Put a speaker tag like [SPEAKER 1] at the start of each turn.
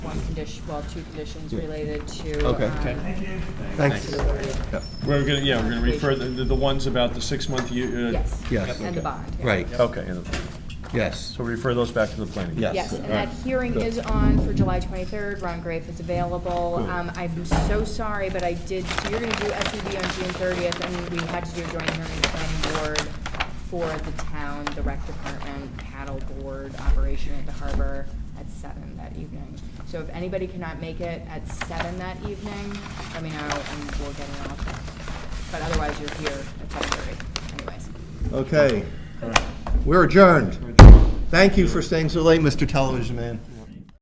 [SPEAKER 1] condition, well, two conditions related to.
[SPEAKER 2] Okay.
[SPEAKER 1] um,
[SPEAKER 2] Okay.
[SPEAKER 3] Thanks.
[SPEAKER 4] We're gonna, yeah, we're gonna refer, the, the ones about the six-month, u- uh.
[SPEAKER 1] Yes.
[SPEAKER 2] Yes.
[SPEAKER 1] And the bond. yeah.
[SPEAKER 2] Right,
[SPEAKER 4] Okay, and-
[SPEAKER 2] yes,
[SPEAKER 4] so we refer those back to the planning.
[SPEAKER 2] Yes.
[SPEAKER 1] Yes, and
[SPEAKER 4] All right.
[SPEAKER 1] that hearing is on for July 23rd. Ron Grafe is available.
[SPEAKER 4] Cool.
[SPEAKER 1] Um, I'm so sorry, but I did, so you're going to do SUV on June 30th, and we had to do a joint hearing with the planning board for the town, the rec department, paddle board operation at the harbor at 7 that evening. So if anybody cannot make it at 7 that evening, let me know, and we'll get it off. But otherwise, you're here at 7:30 anyways.
[SPEAKER 2] okay. We're adjourned. Thank you for staying so late, Mr. Television Man.